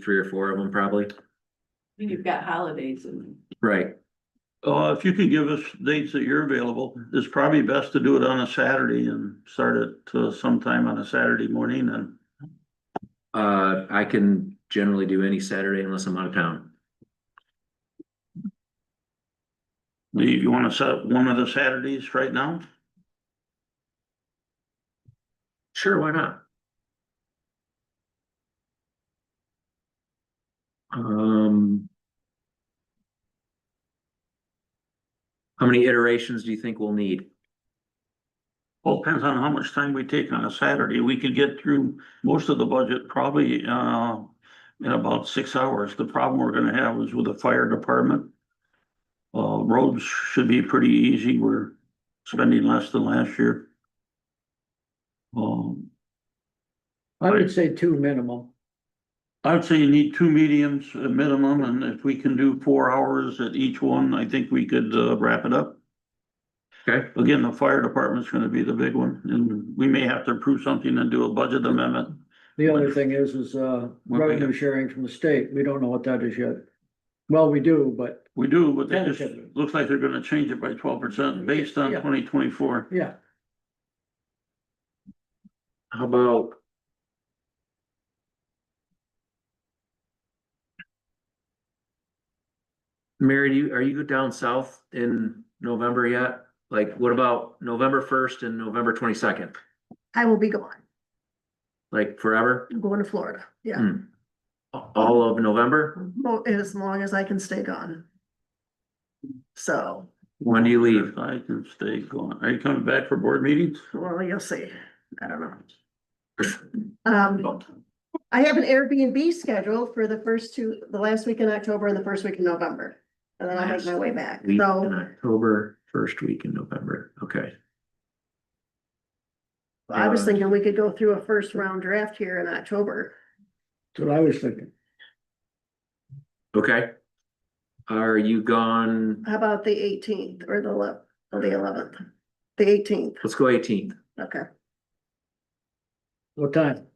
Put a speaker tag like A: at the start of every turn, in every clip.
A: three or four of them probably,
B: Then You've got holidays and
A: right?
C: Uh, if you could give us dates that you're available, it's probably best to do it on a Saturday and start it uh, sometime on a Saturday morning and.
A: Uh, I can generally do any Saturday unless I'm out of town.
C: Do you, you wanna set up one of the Saturdays right now?
A: Sure, why not? Um. How many iterations do you think we'll need?
C: Well, depends on how much time we take on a Saturday. We could get through most of the budget probably, uh, in about six hours. The problem we're gonna have is with the fire department. Uh, roads should be pretty easy. We're spending less than last year. Um,
D: I would say two minimum.
C: I would say you need two mediums uh, minimum, and if we can do four hours at each one, I think we could uh, wrap it up.
A: Okay.
C: Again, the fire department's gonna be the big one, and we may have to approve something and do a budget amendment.
D: The other thing is, is, uh,
C: What we
D: revenue
C: have.
D: sharing from the state. We don't know what that is yet. Well, we do, but
C: We do, but they just,
D: Dedicated.
C: looks like they're gonna change it by twelve percent based on
D: Yeah.
C: twenty twenty-four.
D: yeah,
A: How about? Mary, do you, are you down south in November yet? Like, what about November first and November twenty-second?
E: I will be gone.
A: Like forever?
E: I'm going to Florida. Yeah,
A: Hmm. All of November?
E: well, as long as I can stay gone. So,
A: When do you leave?
C: I can stay going. Are you coming back for board meetings?
E: well, you'll see. I don't know. Um, I have an Airbnb scheduled for the first two, the last week in October and the first week in November. And then I'll make my way back.
A: Week in
E: So
A: October, first week in November, okay.
E: I was thinking we could go through a first round draft here in October.
D: that's what I was thinking.
A: Okay. Are you gone?
E: How about the eighteenth or the elev- or the eleventh? The eighteenth,
A: Let's go eighteenth,
E: okay.
D: What time?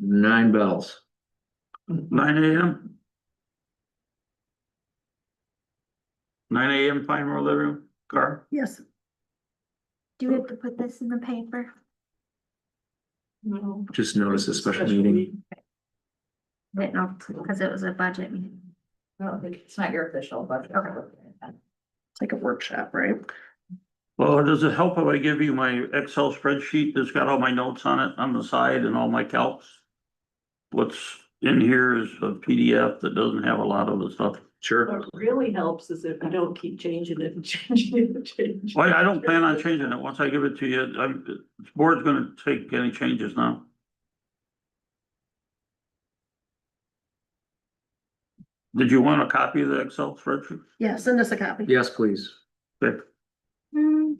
A: nine bells.
C: Nine AM? Nine AM, fine, we're living room, Carl?
E: Yes,
F: Do we have to put this in the paper?
B: no.
A: Just notice a special meeting.
F: But no, because it was a budget meeting.
B: I don't think, it's not your official budget.
E: it's like a workshop, right?
C: Well, does it help if I give you my Excel spreadsheet that's got all my notes on it on the side and all my calcs? What's in here is a PDF that doesn't have a lot of the stuff.
A: Sure.
B: What really helps is if I don't keep changing it and changing it and changing. it.
C: Well, I don't plan on changing it. Once I give it to you, I'm, the board's gonna take any changes now. Did you want a copy of the Excel spreadsheet?
E: Yeah, send us a copy.
A: Yes, please.
C: Vic?
F: Hmm.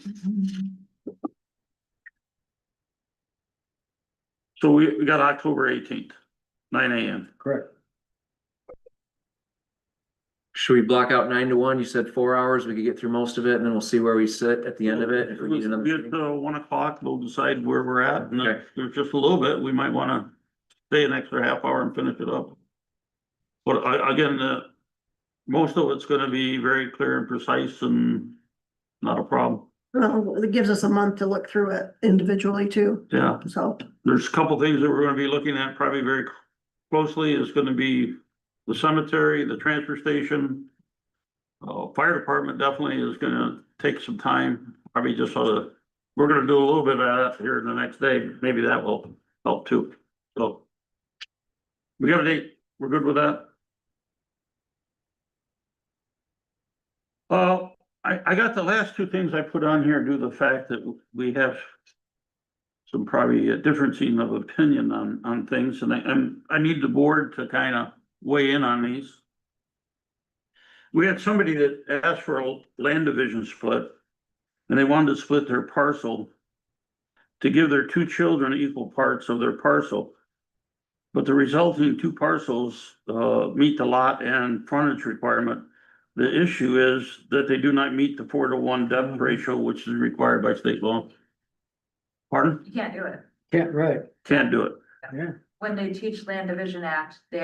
C: So we, we got October eighteenth, nine AM.
D: Correct.
A: Should we block out nine to one? You said four hours. We could get through most of it and then we'll see where we sit at the end of it. If we need another.
C: Get
A: meeting.
C: to one o'clock, we'll decide where we're at, and if
A: Okay.
C: there's just a little bit, we might wanna stay an extra half hour and finish it up. But I, again, uh, most of it's gonna be very clear and precise and not a problem,
E: Well, Uh, it gives us a month to look through it individually too,
C: yeah.
E: so.
C: There's a couple things that we're gonna be looking at probably very closely, is gonna be the cemetery, the transfer station. Uh, fire department definitely is gonna take some time, probably just sort of, we're gonna do a little bit of that here in the next day, maybe that will help too, so. We got a date, we're good with that? Uh, I, I got the last two things I put on here due to the fact that we have some probably a differencing of opinion on, on things, and I, I'm, I need the board to kind of weigh in on these. We had somebody that asked for a land division split, and they wanted to split their parcel to give their two children equal parts of their parcel. But the resulting two parcels, uh, meet the lot and frontage requirement. The issue is that they do not meet the four to one depth ratio, which is required by state law. Pardon?
F: You can't do it.
D: Can't, right,
C: Can't do it.
D: Yeah.
G: when they teach Land Division Act, they